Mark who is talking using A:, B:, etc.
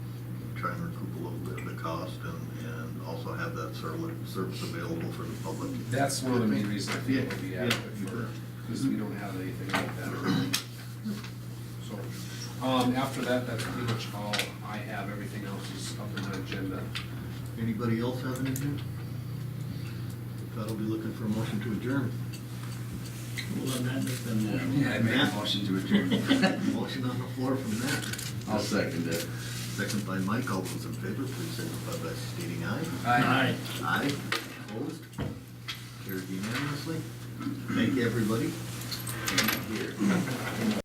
A: try and recoup a little bit of the cost and, and also have that serli- service available for the public.
B: That's one of the main reasons I think it
A: Yeah,
B: would be
A: yeah.
B: adequate for, because we don't have anything like that already. So, um, after that, that's pretty much all I have, everything else is up in the agenda.
A: Anybody else have anything? If not, I'll be looking for a motion to adjourn.
C: Well, on that, just then, uh,
D: Yeah, I made a motion to adjourn.
A: Motion on the floor from Matt,
D: I'll second it.
A: second by Mike, all those in favor, please signify by stating aye.
C: Aye.
A: Aye, opposed, carried unanimously. Thank you, everybody.
D: Here.